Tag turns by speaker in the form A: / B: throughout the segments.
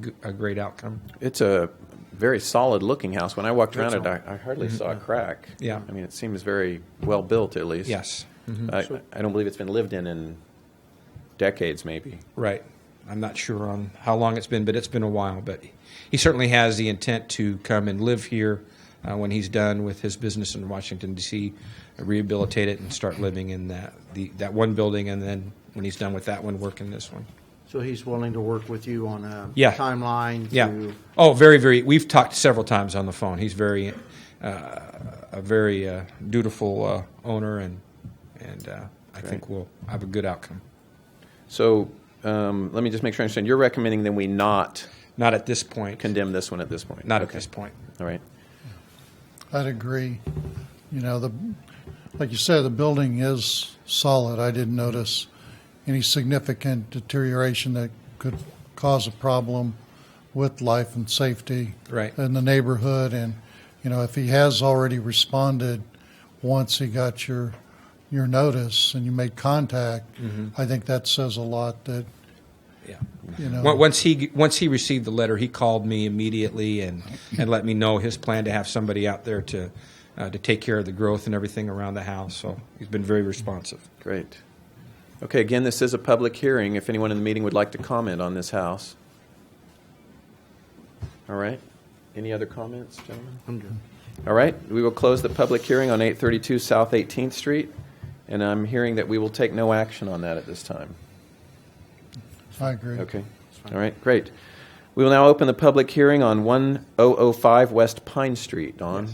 A: g- a great outcome.
B: It's a very solid looking house. When I walked around it,
A: Excellent.
B: I, I hardly saw a crack.
A: Mm-hmm. Yeah.
B: I mean, it seems very well built, at least.
A: Yes, Mm-hmm.
B: I, I don't believe it's been lived in in decades, maybe.
A: right. I'm not sure on how long it's been, but it's been a while. But he certainly has the intent to come and live here uh, when he's done with his business in Washington D.C., rehabilitate it and start living in that the, that one building, and then when he's done with that one, work in this one.
C: So he's willing to work with you on a
A: Yeah.
C: timeline?
A: Yeah.
C: to-
A: Oh, very, very. We've talked several times on the phone. He's very, uh, a very uh, dutiful uh, owner, and and uh, I think we'll have a good outcome.
B: So um, let me just make sure I understand. You're recommending that we not
A: Not at this point.
B: condemn this one at this point?
A: Not at
B: Okay.
A: this point.
B: All right.
D: I'd agree. You know, the like you said, the building is solid. I didn't notice any significant deterioration that could cause a problem with life and safety
A: Right.
D: in the neighborhood. And you know, if he has already responded once he got your your notice and you made contact,
B: Mm-hmm.
D: I think that says a lot. That
A: Yeah.
D: you know,
A: Once- Once he once he received the letter, he called me immediately and, and let me know his plan to have somebody out there to uh, to take care of the growth and everything around the house. So he's been very responsive.
B: Great. Okay, again, this is a public hearing. If anyone in the meeting would like to comment on this house. All right. Any other comments, gentlemen?
C: I'm good.
B: All right, we will close the public hearing on 832 South 18th Street, and I'm hearing that we will take no action on that at this time.
D: I agree.
B: Okay, all right, great. We will now open the public hearing on 1005 West Pine Street. Don?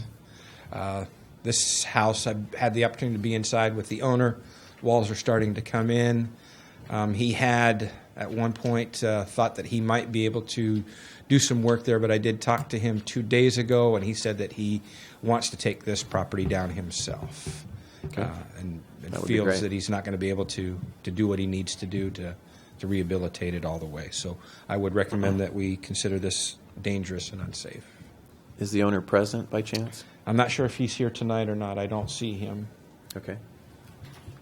A: this house. I've had the opportunity to be inside with the owner. Walls are starting to come in. Um, he had at one point uh, thought that he might be able to do some work there, but I did talk to him two days ago, and he said that he wants to take this property down himself, uh, and, and
B: That would be
A: feels
B: great.
A: that he's not going to be able to to do what he needs to do to to rehabilitate it all the way. So I would recommend
B: Uh-huh.
A: that we consider this dangerous and unsafe.
B: Is the owner present by chance?
A: I'm not sure if he's here tonight or not. I don't see him.
B: Okay.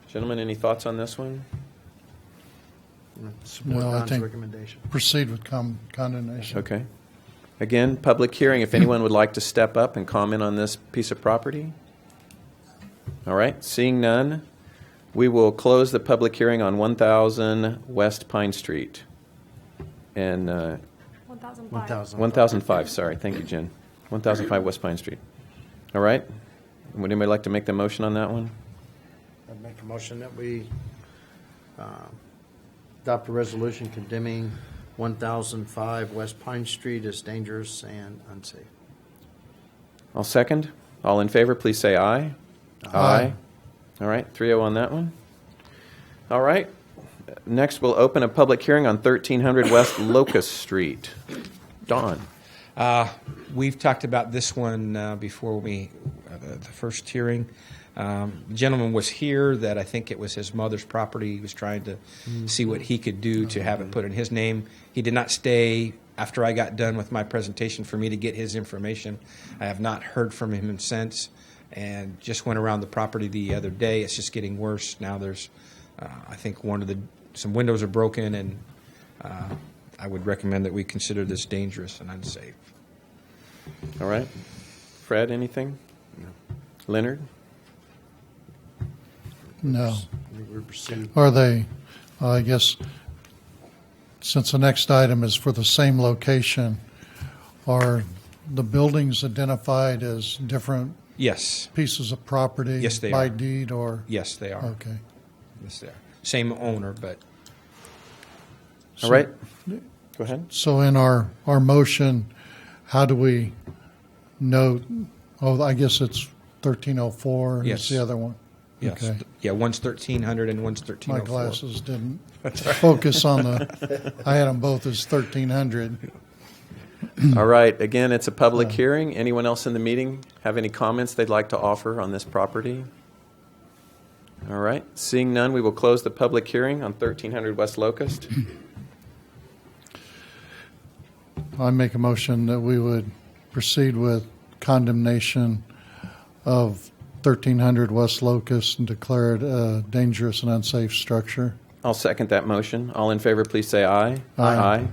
B: Gentlemen, any thoughts on this one?
C: Support
D: Mm, Well, I
C: Don's
D: think-
C: recommendation.
D: Proceed with con- condemnation.
B: Okay. Again, public hearing, if anyone would like to step up and comment on this piece of property? All right, seeing none, we will close the public hearing on 1,000 West Pine Street. And, uh,
E: 1,005.
C: 1,000.
B: 1,005, sorry, thank you, Jen. 1,005 West Pine Street. All right? Would anybody like to make the motion on that one?
C: I'd make a motion that we uh, adopt a resolution condemning 1,005 West Pine Street as dangerous and unsafe.
B: I'll second. All in favor, please say aye.
D: Aye.
B: All right, 3-0 on that one. All right. Next, we'll open a public hearing on 1300 West Locust Street. Don,
A: We've talked about this one uh, before we, uh, the the first hearing. Um, the gentleman was here that I think it was his mother's property. He was trying to see what he could do to have it put in his name. He did not stay after I got done with my presentation for me to get his information. I have not heard from him since and just went around the property the other day. It's just getting worse. Now there's, uh, I think, one of the, some windows are broken and uh, I would recommend that we consider this dangerous and unsafe.
B: all right? Fred, anything? Leonard?
D: No.
C: I think we proceed.
D: Are they, uh, I guess, since the next item is for the same location, are the buildings identified as different
A: Yes.
D: pieces of property?
A: Yes, they
D: By
A: are.
D: deed or?
A: Yes, they are.
D: Okay.
A: Yes, they are. Same owner, but
B: All right? Go ahead.
D: So in our, our motion, how do we note, oh, I guess it's 1304
A: Yes.
D: is the other one?
A: yes. oh
D: Okay.
A: Yeah, one's 1300 and one's
D: My
A: 1304.
D: glasses didn't focus on the, I had them both as 1300.
B: All right, again, it's a public hearing. Anyone else in the meeting have any comments they'd like to offer on this property? All right, seeing none, we will close the public hearing on 1300 West Locust.
D: I make a motion that we would proceed with condemnation of 1300 West Locust and declare it a dangerous and unsafe structure.
B: I'll second that motion. All in favor, please say aye.
D: Aye.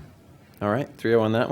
B: All right, 3-0 on that